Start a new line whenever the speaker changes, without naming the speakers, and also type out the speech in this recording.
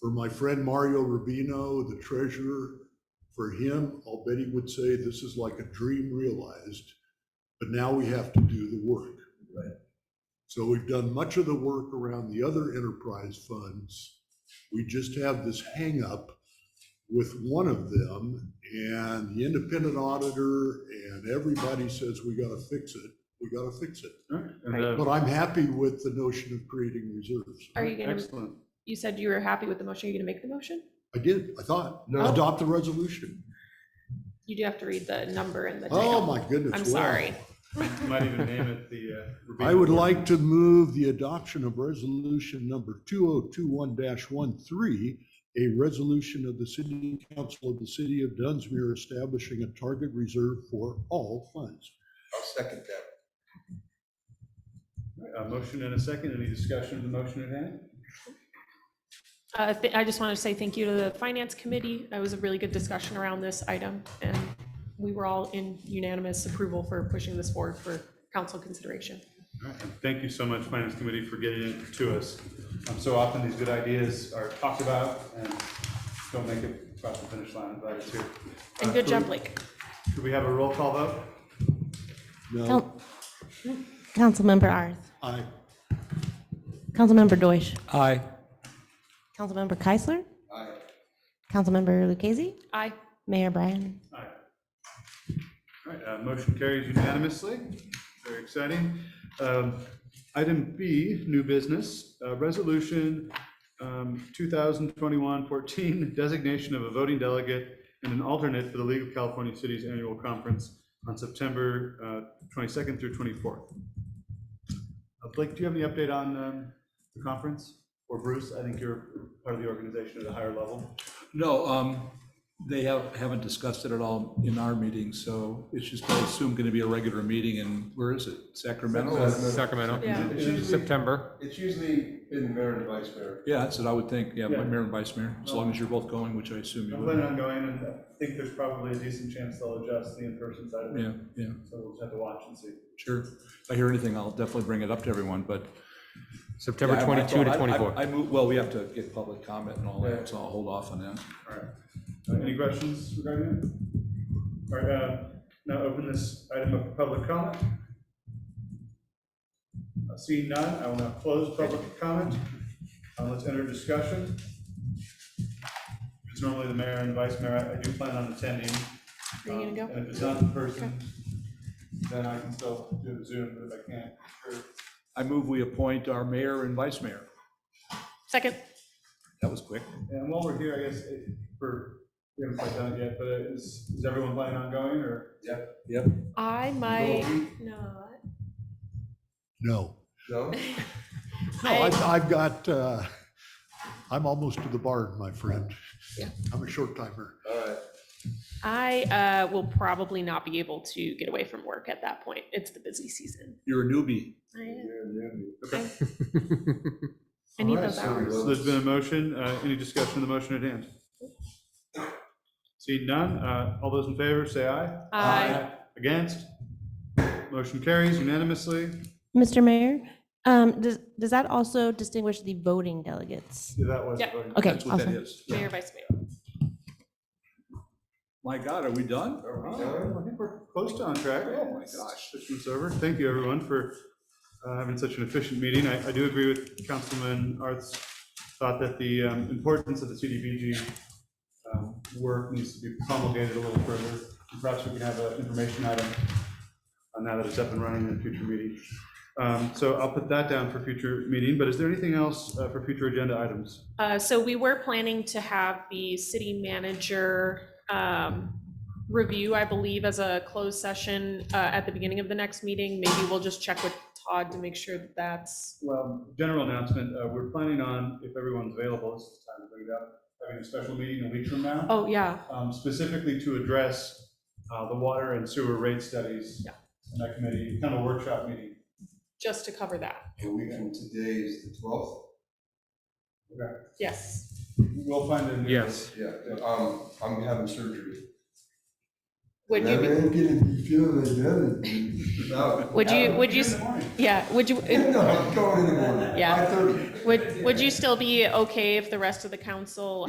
For my friend Mario Rubino, the treasurer, for him, I'll bet he would say this is like a dream realized, but now we have to do the work.
Right.
So we've done much of the work around the other enterprise funds. We just have this hangup with one of them and the independent auditor and everybody says we gotta fix it, we gotta fix it.
And, uh,
But I'm happy with the notion of creating reserves.
Are you gonna,
Excellent.
you said you were happy with the motion, are you gonna make the motion?
I did, I thought,
No.
adopt the resolution.
You do have to read the number and the
Oh,
title.
my goodness.
I'm
wow.
sorry.
Might even name it the. uh,
I
Rubino
would
Award.
like to move the adoption of resolution number two oh two one 13 a resolution of the city council of the city of Dunsmere establishing a target reserve for all funds.
I'll second that.
A Uh, motion and a second. Any discussion of the motion at hand?
Uh, th- I just want to say thank you to the finance committee. That was a really good discussion around this item, and we were all in unanimous approval for pushing this forward for council consideration.
All right, and Thank you so much, Finance Committee, for getting it to us. Um, So often these good ideas are talked about and don't make it across the finish line. I'm glad it's here.
And
Uh, could
good job,
we-
Blake.
Could we have a roll call vote?
No,
Coun- Councilmember Arth.
I,
Councilmember Deutsch.
Aye.
Councilmember Keisler.
Aye.
Councilmember Lucchese.
Aye.
Mayor Brian.
Aye. All right, uh, motion carries unanimously. Very exciting. Um, Item B, new business, uh, resolution um, 2021-14, designation of a voting delegate and an alternate for the League of California Cities Annual Conference on September uh, 22nd through 24th. Uh, Blake, do you have any update on um, the conference? Or Bruce, I think you're part of the organization at a higher level.
No, um, they have, haven't discussed it at all in our meeting, so it's just, I assume, gonna be a regular meeting, and where is it? Sacramento?
Sacramento,
Yeah.
It's usually September.
It's usually been the mayor and the vice mayor.
Yeah, that's what I would think, yeah,
Yeah.
mayor and vice mayor, as long as you're both going, which I assume you
I'm planning
would.
on going, and I think there's probably a decent chance they'll adjust the in-person side of it,
Yeah, yeah,
so we'll just have to watch and see.
sure. If I hear anything, I'll definitely bring it up to everyone, but.
September
Yeah, I- I
22
thought-
to
I- I-
24.
I move, well, we have to get public comment and all that, so I'll hold off on that.
All right. Uh, Any questions regarding that? All right, uh, now open this item up for public comment. Uh, Seeing none, I will now close public comment. Uh, Let's enter discussion. It's normally the mayor and vice mayor. I- I do plan on attending.
Are you gonna go?
Um,
uh,
And if it's not in person, then I can still do the Zoom, but if I can't, sure.
I move we appoint our mayor and vice mayor.
Second,
That was quick.
And while we're here, I guess, eh, for, we haven't quite done it yet, but is, is everyone planning on going, or?
Yep.
I might not.
no. No,
No?
I've, I've got, uh, I'm almost to the barn, my friend.
Yeah.
I'm a short timer.
All right.
I uh, will probably not be able to get away from work at that point. It's the busy season.
You're a newbie.
I am.
Okay.
I
All
need
right,
those
so
hours.
There's been a motion, uh, any discussion of the motion at hand? See none, uh, all those in favor, say aye.
Aye.
Against? Motion carries unanimously.
Mr. Mayor, um, does, does that also distinguish the voting delegates?
Yeah, That was.
Yeah.
voting.
Okay,
That's what that
awesome.
is.
Mayor, Vice Mayor.
My God, are we done?
All right, I think we're close to on track. Oh, my gosh. This one's over. Thank you, everyone, for uh, having such an efficient meeting. I, I do agree with Councilman Arth's thought that the um, importance of the CDBG um, work needs to be promulgated a little further. Perhaps we can have an information item on now that it's up and running in a future meeting. Um, So I'll put that down for future meeting, but is there anything else uh, for future agenda items?
Uh, so we were planning to have the city manager, um, review, I believe, as a closed session, uh, at the beginning of the next meeting. Maybe we'll just check with Todd to make sure that that's,
Well, general announcement, uh, we're planning on, if everyone's available, this is the time to bring it up, having a special meeting a week from now.
oh, yeah,
um, specifically to address uh, the water and sewer rate studies.
Yeah.
And that committee, kind of workshop meeting.
just to cover that.
A week from today is the twelfth?
Yes.
We'll find a new.
Yes.
Yeah, um, I'm having surgery.
Would you, be-
ain't gonna be feeling like that. No.
would you, would you, s- yeah, would you,
No, I'm going in the morning.
Yeah.
5:30.
would, would you still be okay if the rest of the council